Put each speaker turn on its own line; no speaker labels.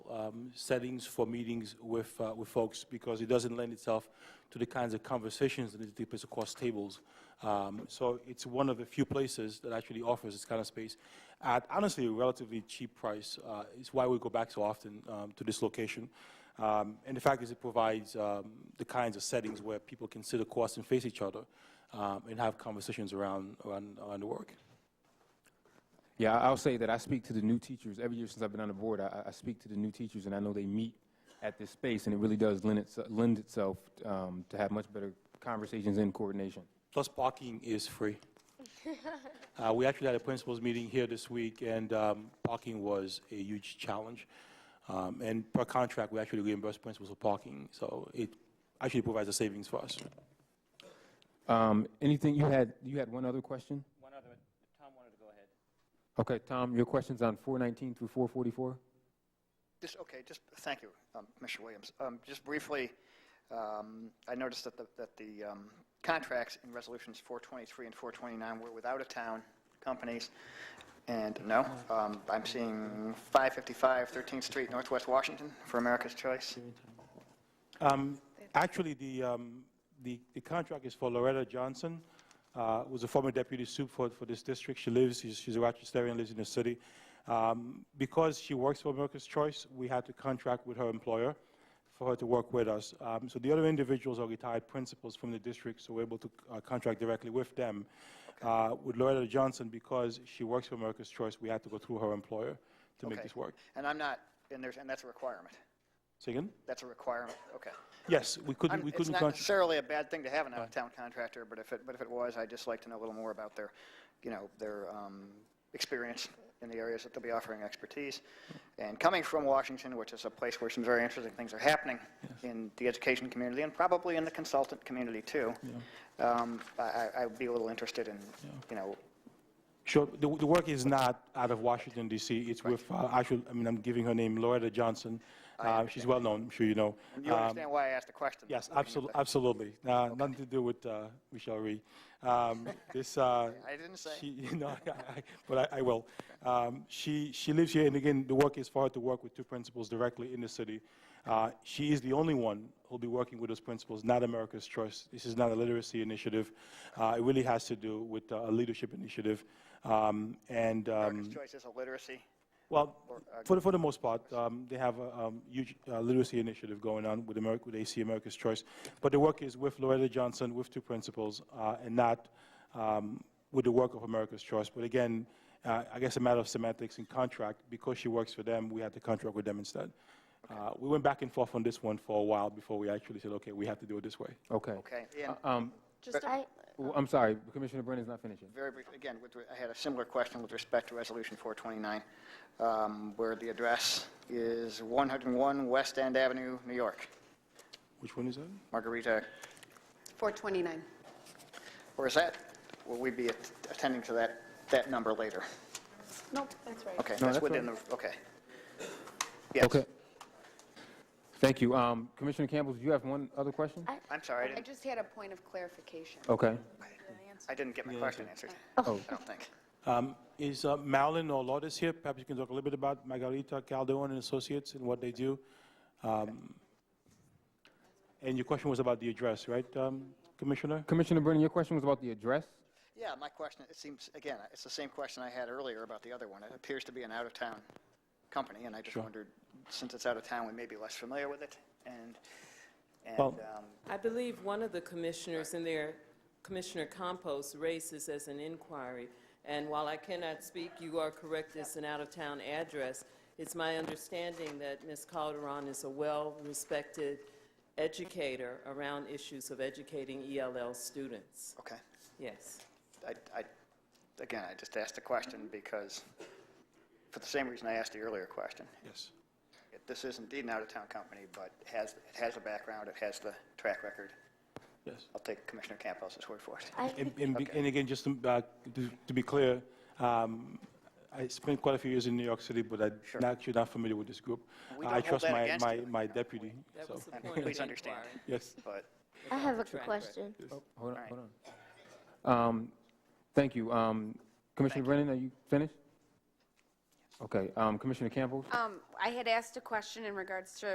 um, settings for meetings with, uh, with folks because it doesn't lend itself to the kinds of conversations that it depicts across tables. Um, so it's one of the few places that actually offers this kind of space at honestly a relatively cheap price. Uh, it's why we go back so often um, to this location. Um, and the fact is, it provides um, the kinds of settings where people can sit across and face each other um, and have conversations around, around, around the work.
Yeah, I- I'll say that I speak to the new teachers every year since I've been on the board. I, I- I speak to the new teachers, and I know they meet at this space, and it really does lend, its, lend itself um, to have much better conversations and coordination.
Plus, parking is free. uh, we actually had a principals meeting here this week, and um, parking was a huge challenge. Um, and per contract, we actually reimburse principals for parking, so it actually provides a savings for us.
Um, anything you had? You had one other question?
One other, Tom wanted to go ahead.
Okay, Tom, your question's on 419 through 444.
Just, okay, just, thank you, um, Mr. Williams. Um, Just briefly, um, I noticed that the, that the um, contracts in Resolutions 423 and 429 were without a town companies, and no, um, I'm seeing 555 13th Street, Northwest Washington, for America's Choice.
Um, Actually, the, um, the the contract is for Loretta Johnson, uh, who's a former deputy soup for, for this district. She lives, she's she's a Rochesterian, lives in the city. Um, Because she works for America's Choice, we had to contract with her employer for her to work with us. Um, So the other individuals are retired principals from the district, so we're able to uh, contract directly with them. Uh, With Loretta Johnson, because she works for America's Choice, we had to go through her employer to make
Okay.
this work.
And I'm not, and there's, and that's a requirement.
Say again?
That's a requirement, okay.
Yes, we couldn't,
I'm-
we
It's
couldn't.
not
contract.
necessarily a bad thing to have an out-of-town contractor, but if it, but if it was, I'd just like to know a little more about their, you know, their um, experience in the areas that they'll be offering expertise. And coming from Washington, which is a place where some very interesting things are happening in the education community and probably in the consultant community too, um, I, I- I would be a little interested in, you know,
Sure. The, the work is not out of Washington DC. It's with, uh, actually, I mean, I'm giving her name, Loretta Johnson. Uh, she's well-known, I'm sure you know.
you
Um,
understand why I asked the question.
Yes,
I mean,
absolutely, absolutely. Uh, Nothing to do with uh, Michelle Rhee. Um, This, uh,
I didn't say.
she- no, I- I- but I, I will. Um, She, she lives here, and again, the work is for her to work with two principals directly in the city. Uh, She is the only one who'll be working with those principals, not America's Choice. This is not a literacy initiative. Uh, It really has to do with uh, a leadership initiative. Um, And, um,
America's Choice is a literacy.
well, for, the- for the most part, um, they have a um, huge uh, literacy initiative going on with America, with AC America's Choice. But the work is with Loretta Johnson, with two principals, uh, and not um, with the work of America's Choice. But again, uh, I guess a matter of semantics and contract, because she works for them, we had to contract with them instead. Uh, we went back and forth on this one for a while before we actually said, okay, we have to do it this way.
Okay.
Okay, and
Um,
Just, a-
well, I'm sorry, Commissioner Brennan's not finishing.
Very brief, again, with, I had a similar question with respect to Resolution 429, um, where the address is 101 West End Avenue, New York.
Which one is that?
Margarita,
429.
or is that, will we be at- attending to that, that number later?
Nope, that's right.
Okay,
No,
that's
that's
within the, okay. Yes.
Okay. Thank you. Um, Commissioner Campbell, do you have one other question?
I'm sorry, I
I
didn't-
just had a point of clarification.
Okay.
I didn't get my question answered,
Oh,
I don't think.
Um, is uh, Marilyn or Lourdes here? Perhaps you can talk a little bit about Margarita Calderon and Associates and what they do. Um, And your question was about the address, right, um, Commissioner?
Commissioner Brennan, your question was about the address?
Yeah, my question, it seems, again, it's the same question I had earlier about the other one. It appears to be an out-of-town company, and I just wondered, since it's out of town, we may be less familiar with it, and, and,
Well-
um,
I believe one of the commissioners in there, Commissioner Campos, raised this as an inquiry. And while I cannot speak, you are correct, it's an out-of-town address. It's my understanding that Ms. Calderon is a well-respected educator around issues of educating ELL students.
okay.
Yes.
I, I, again, I just asked the question because, for the same reason I asked the earlier question.
Yes.
It- This is indeed an out-of-town company, but it has, it has a background, it has the track record.
Yes.
I'll take Commissioner Campos' word for it.
And, and be- and again, just to, uh, to- to be clear, um, I spent quite a few years in New York City, but I'm not- actually not familiar with this group.
We
I
don't hold
trust
that
my-
against
my-
you.
My deputy,
That
so,
was the point of
Please
the
understand.
inquiry.
yes.
But,
I have a
track
question.
Oh, Hold on,
Right.
hold on. Um, Thank you. Um, Commissioner Brennan, are you finished?
Okay, um, Commissioner Campbell?
Um, I had asked a question in regards to